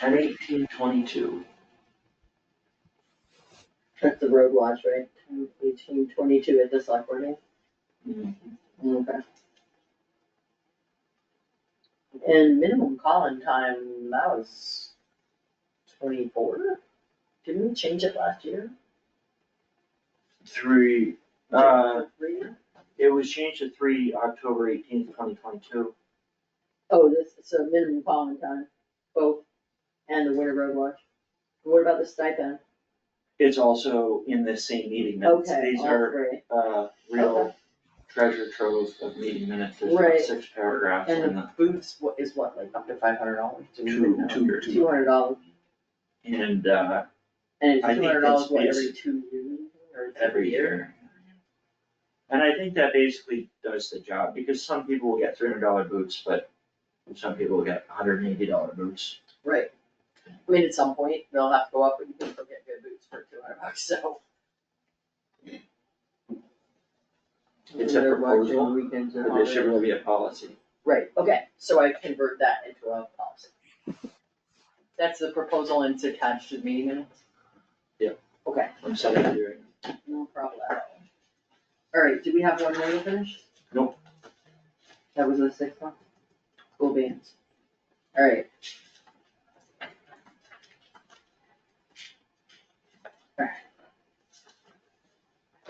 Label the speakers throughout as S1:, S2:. S1: At eighteen twenty-two.
S2: That's the road watch, right? Eighteen twenty-two at the select board meeting?
S3: Mm-hmm.
S2: Okay. And minimum calling time, that was twenty-four? Didn't we change it last year?
S1: Three, uh,
S2: Three?
S1: it was changed to three, October eighteenth, twenty twenty-two.
S2: Oh, this, so minimum calling time, both, and the winter road watch. What about the stipend?
S1: It's also in this same meeting minutes,
S2: Okay,
S1: these
S2: all
S1: are,
S2: three.
S1: uh, real
S2: Okay.
S1: treasure trove of meeting minutes, there's
S2: Right.
S1: like six paragraphs
S2: And
S1: in the
S3: Booths wa- is what, like up to five hundred dollars?
S1: two, two,
S2: Two
S1: two.
S2: hundred dollars,
S1: And, uh,
S2: and it's
S1: I
S2: two
S1: think
S2: hundred dollars,
S1: it's-
S2: what,
S1: it's-
S2: every two years or
S1: every year. And I think that basically does the job, because some people will get three hundred dollar boots, but some people will get hundred and eighty dollar boots.
S2: Right. I mean, at some point, they'll have to go up and people will get good boots for two hundred bucks, so.
S1: It's a
S2: They're watching
S1: proposal,
S2: weekends and
S1: There should
S2: holidays.
S1: really be a policy.
S2: Right, okay, so I convert that into a policy. That's the proposal and it's attached to the meeting minutes?
S1: Yeah.
S2: Okay,
S1: I'm sorry, I'm doing-
S2: no problem. All right, do we have one more to finish?
S1: Nope.
S2: That was the sixth one? Cool beans. All right,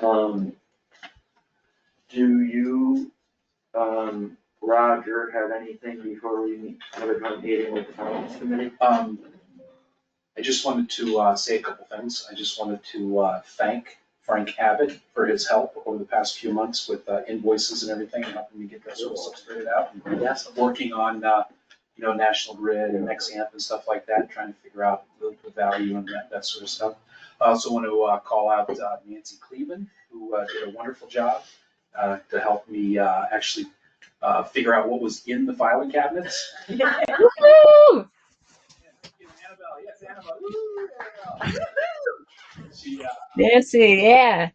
S1: Um, do you, um, Roger, have anything before we have a joint meeting with the finance committee?
S3: Um, I just wanted to, uh, say a couple things. I just wanted to, uh, thank Frank Abbott for his help over the past few months with uh, invoices and everything, and helping me get that sort of stuff straightened out. and
S2: Yes.
S3: Working on, uh, you know, National Grid and Nexamp and stuff like that, trying to figure out the, the value and that, that sort of stuff. I also want to, uh, call out uh, Nancy Cleveland, who, uh, did a wonderful job, uh, to help me, uh, actually, uh, figure out what was in the filing cabinets.
S4: Woo!
S3: Annabelle, yes, Annabelle, woo, Annabelle. She, uh,
S4: Nancy, yeah.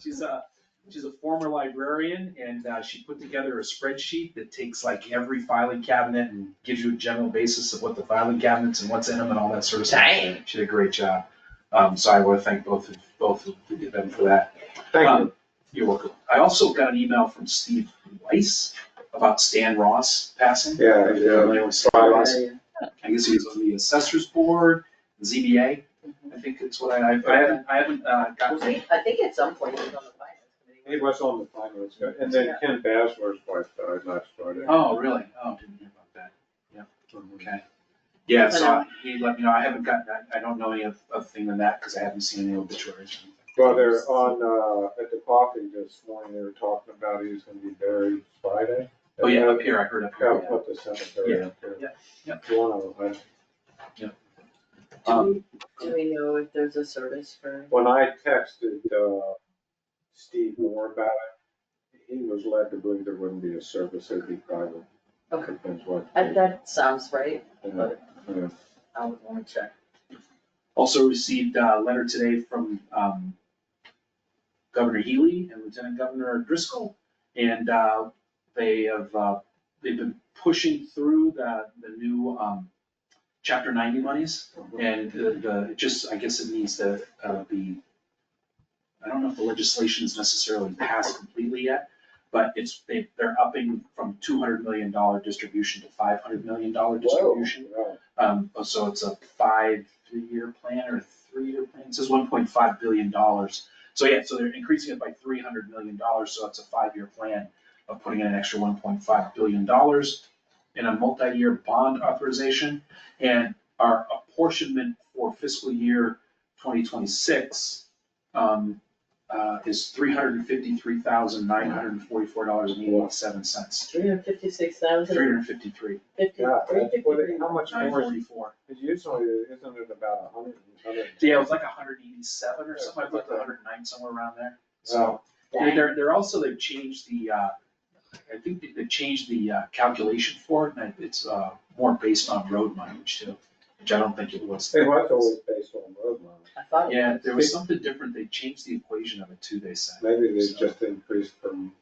S3: she's a, she's a former librarian and, uh, she put together a spreadsheet that takes like every filing cabinet and gives you a general basis of what the filing cabinets and what's in them and all that sort of stuff.
S2: Dang.
S3: She did a great job. Um, so I want to thank both of, both of them for that. Um, You're welcome. I also got an email from Steve Weiss about Stan Ross passing.
S5: Yeah,
S3: Are you
S5: yeah.
S3: familiar with Stan
S5: Five.
S3: Ross? I guess he was on the assessors board, ZBA, I think that's what I, I haven't, I haven't, uh,
S2: Was
S3: gotten.
S2: he- I think at some point he was on the finance committee.
S5: He was on the finance, committee, and then Ken Basler's wife died last Friday.
S3: Oh, really? Oh, didn't hear about that. Yeah, okay. Yeah, so I- he let me know, I haven't gotten, that. I don't know any of, of thing than that, because I haven't seen any obituaries or anything.
S5: Well, they're on, uh, at the coffee this morning, they were talking about he's gonna be buried Friday.
S3: Oh, yeah, up here, I heard up
S5: Gotta
S3: here, yeah.
S5: put the cemetery up there.
S3: Yeah, yeah,
S5: One of them,
S3: Um,
S2: Do we, do we know if there's a service for,
S5: when I texted, uh, Steve Moore about it, he was led to believe there wouldn't be a service, it'd be private.
S2: Okay.
S5: Depends what.
S2: I- that sounds right, um,
S5: Yeah, yeah.
S2: I would wanna check.
S3: Also received uh, a letter today from um, Governor Healy and Lieutenant Governor Driscoll. And uh, they have, uh, they've been pushing through the, the new um, chapter ninety monies. And the, the, it just, I guess it needs to uh, be, I don't know if the legislation's necessarily passed completely yet, but it's, they, they're upping from two hundred million dollar distribution to five hundred million dollar distribution.
S5: Wow.
S3: Um, so it's a five, three-year plan or a three-year plan, it says one point five billion dollars. So yeah, so they're increasing it by three hundred million dollars, so it's a five-year plan of putting in an extra one point five billion dollars in a multi-year bond authorization. And our apportionment for fiscal year twenty twenty-six, um, uh, is three hundred and fifty-three thousand, nine hundred and forty-four dollars and eighty-seven cents.
S2: Three hundred fifty-six
S3: Three
S2: thousand,
S3: hundred and fifty-three,
S2: fifty,
S5: Yeah,
S2: three
S5: that's what it-
S2: fifty-three.
S5: how much
S3: nine
S5: more is,
S3: forty-four.
S5: it's usually, isn't it about a hundred, hundred?
S3: Yeah, it was like hundred eighty-seven or something, I looked at hundred nine, somewhere around there. So,
S2: Dang.
S3: and they're, they're also, they've changed the, uh, I think they- they've changed the uh, calculation for it, and it's, uh, more based on road mileage too, which I don't think it was.
S5: It was always based on road miles.
S2: I thought, it
S3: Yeah, there was something different, they changed the equation of it too, they said.
S5: Maybe they
S3: So-
S5: just increased from,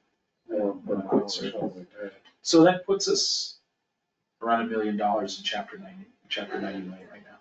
S5: um, from hours or something like that.
S3: So that puts us around a million dollars in chapter ninety. chapter ninety-nine right now.